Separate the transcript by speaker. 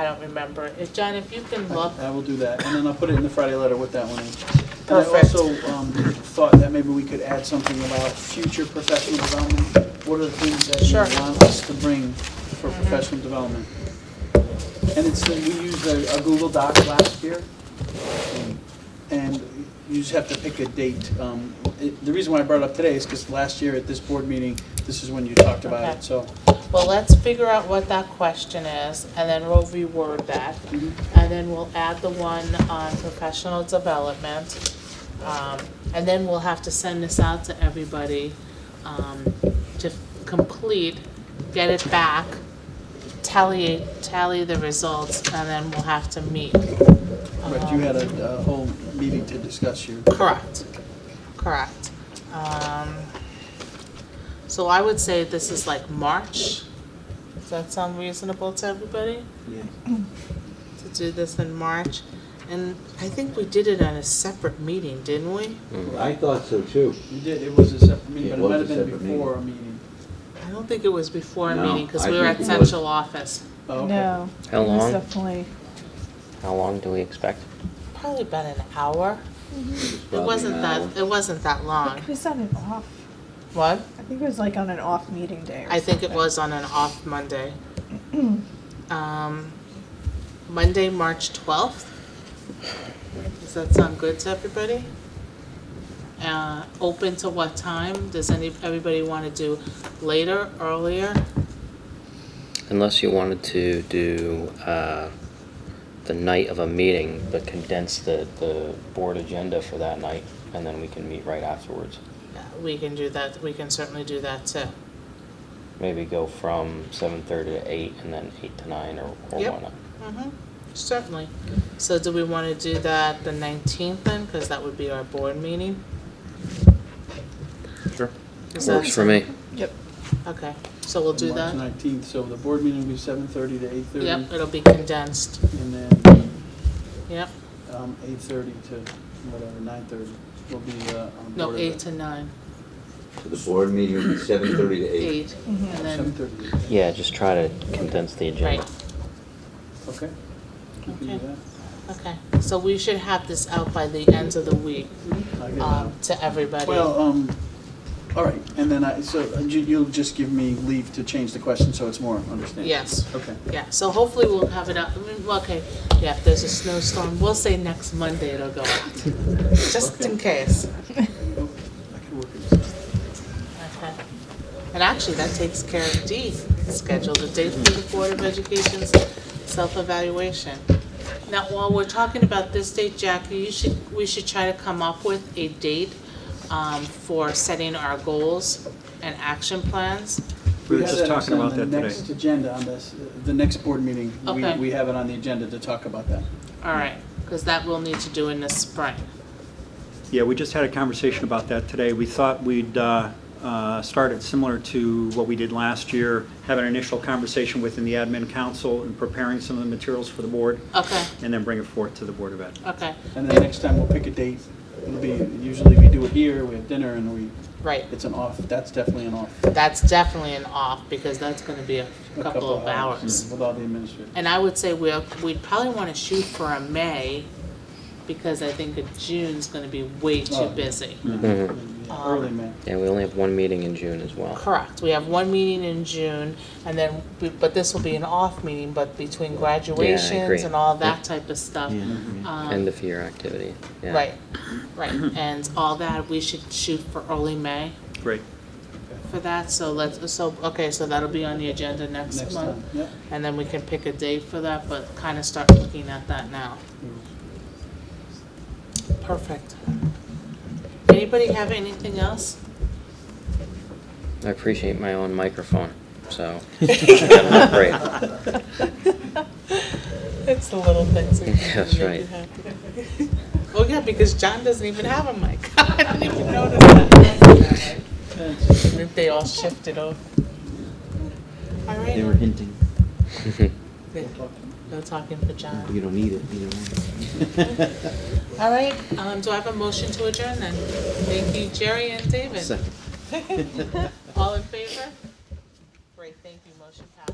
Speaker 1: I don't remember. If, John, if you can look,
Speaker 2: I will do that, and then I'll put it in the Friday letter with that one in.
Speaker 1: Perfect.
Speaker 2: And I also um, thought that maybe we could add something about future professional development. What are the things that you
Speaker 1: Sure. Mm-hmm.
Speaker 2: want us to bring for professional development? And it's, we used a a Google Doc last year, and you just have to pick a date. Um, it- The reason why I brought it up today is because last year at this board meeting, this is when you talked about
Speaker 1: Okay.
Speaker 2: it, so.
Speaker 1: well, let's figure out what that question is, and then we'll reword that.
Speaker 2: Mhm.
Speaker 1: And then we'll add the one on professional development. Um, And then we'll have to send this out to everybody um, to complete, get it back, tally, tally the results, and then we'll have to meet.
Speaker 2: Right, you had a a whole meeting to discuss your,
Speaker 1: Correct, correct. Um, So I would say this is like March. Does that sound reasonable to everybody, to do this in March? And I think we did it on a separate meeting, didn't we?
Speaker 3: I thought so too.
Speaker 2: You did, it was a separate meeting,
Speaker 3: Yeah,
Speaker 2: but it might have
Speaker 3: it was a
Speaker 2: been
Speaker 3: separate meeting.
Speaker 2: before a meeting.
Speaker 1: I don't think it was before a
Speaker 3: No,
Speaker 1: meeting, because
Speaker 3: I
Speaker 1: we were at
Speaker 3: think it was.
Speaker 1: central office.
Speaker 2: Oh, okay.
Speaker 4: No.
Speaker 5: How
Speaker 4: it was
Speaker 5: long?
Speaker 4: Definitely.
Speaker 5: How long do we expect?
Speaker 1: Probably about an hour. It
Speaker 3: Probably
Speaker 1: wasn't
Speaker 3: now.
Speaker 1: that, it wasn't that long.
Speaker 4: It was on an off.
Speaker 1: What?
Speaker 4: I think it was like on an off meeting day. Or
Speaker 1: I think it
Speaker 4: something.
Speaker 1: was on an off Monday. Um, Monday, March 12th. Does that sound good to everybody? Uh, Open to what time? Does any, everybody want to do later, earlier?
Speaker 5: Unless you wanted to do uh, the night of a meeting, but condense the, the board agenda for that night, and then we can meet right afterwards.
Speaker 1: Uh, We can do that, we can certainly do that too.
Speaker 5: Maybe go from 7:30 to 8, and then 8 to 9, or or
Speaker 1: Yep.
Speaker 5: whatnot.
Speaker 1: Mhm, Certainly. So do we want to do that the 19th then? Because that would be our board meeting?
Speaker 5: Sure.
Speaker 1: Is that-
Speaker 5: Works for me.
Speaker 4: Yep.
Speaker 1: Okay, so we'll do that?
Speaker 2: March 19th, so the board meeting will be 7:30 to 8:30.
Speaker 1: Yep, it'll be condensed.
Speaker 2: And then
Speaker 1: Yep.
Speaker 2: um, 8:30 to whatever, 9:30 will be uh, on the
Speaker 1: No,
Speaker 2: board.
Speaker 1: eight to nine,
Speaker 3: So The board meeting will be seven thirty to eight.
Speaker 1: eight,
Speaker 4: Mhm.
Speaker 2: Mm-hmm.
Speaker 1: and then,
Speaker 2: 7:30,
Speaker 5: Yeah, just try to condense the agenda.
Speaker 1: right,
Speaker 2: okay. We can do
Speaker 1: Okay.
Speaker 2: that.
Speaker 1: okay. So we should have this out by the end of the week,
Speaker 2: I'll get it out.
Speaker 1: um, to everybody.
Speaker 2: Well, um, all right, and then I, so uh, you- you'll just give me leave to change the question so it's more understandable?
Speaker 1: Yes.
Speaker 2: Okay.
Speaker 1: Yeah, so hopefully we'll have it up, I mean, well, okay, yeah, if there's a snowstorm, we'll say next Monday it'll go out, just in case.
Speaker 2: Oh, I can work it.
Speaker 1: Okay. And actually, that takes care of D, schedule the date for the Board of Education's self-evaluation. Now, while we're talking about this date, Jackie, you should, we should try to come up with a date um, for setting our goals and action plans.
Speaker 6: We were
Speaker 2: have
Speaker 6: just talking
Speaker 2: on
Speaker 6: about
Speaker 2: the
Speaker 6: that today.
Speaker 2: next agenda on this, the next board meeting. we-
Speaker 1: Okay.
Speaker 2: We have it on the agenda to talk about that.
Speaker 1: All right, because that we'll need to do in the spring.
Speaker 6: Yeah, we just had a conversation about that today. We thought we'd uh, uh, start it similar to what we did last year, have an initial conversation within the admin council and preparing some of the materials for the board,
Speaker 1: Okay,
Speaker 6: and then bring it forth to the Board of Ed.
Speaker 1: okay,
Speaker 2: And then next time we'll pick a date. It'll be, usually we do it here, we have dinner and we,
Speaker 1: right.
Speaker 2: it's an off, that's definitely an off.
Speaker 1: That's definitely an off, because that's going to be a
Speaker 2: a
Speaker 1: couple of hours.
Speaker 2: With all the administrative.
Speaker 1: And I would say we'll, we'd probably wanna shoot for a May, because I think a June's gonna be way
Speaker 2: Oh.
Speaker 1: too busy.
Speaker 5: Mm. Mm-hmm.
Speaker 1: Um,
Speaker 2: Yeah, Early May.
Speaker 5: Yeah, we only have one meeting in June as well.
Speaker 1: Correct, we have one meeting in June, and then, we- but this will be an off meeting, but between graduations
Speaker 5: agree.
Speaker 1: and all that type of stuff. um,
Speaker 5: End of year activity. Yeah.
Speaker 1: Right, right, and all that, we should shoot for early May
Speaker 6: Great.
Speaker 1: for that, so let's, so, okay, so that'll be on the agenda next
Speaker 2: Next time,
Speaker 1: month.
Speaker 2: yeah.
Speaker 1: And then we can pick a date for that, but kinda start looking at that now. Perfect. Anybody have anything else?
Speaker 5: I appreciate my own microphone, so. Great.
Speaker 1: It's the little things that
Speaker 5: That's
Speaker 1: make
Speaker 5: right.
Speaker 1: you happy. Oh, yeah, because John doesn't even have a mic. I didn't even notice that. They all shifted over. All
Speaker 7: They were
Speaker 1: right,
Speaker 7: hinting,
Speaker 1: no talking for John.
Speaker 7: you don't need it, you know.
Speaker 1: All right, um, do I have a motion to adjourn then? Thank you, Jerry and David.
Speaker 7: Second.
Speaker 1: All in favor? Great, thank you, motion passed.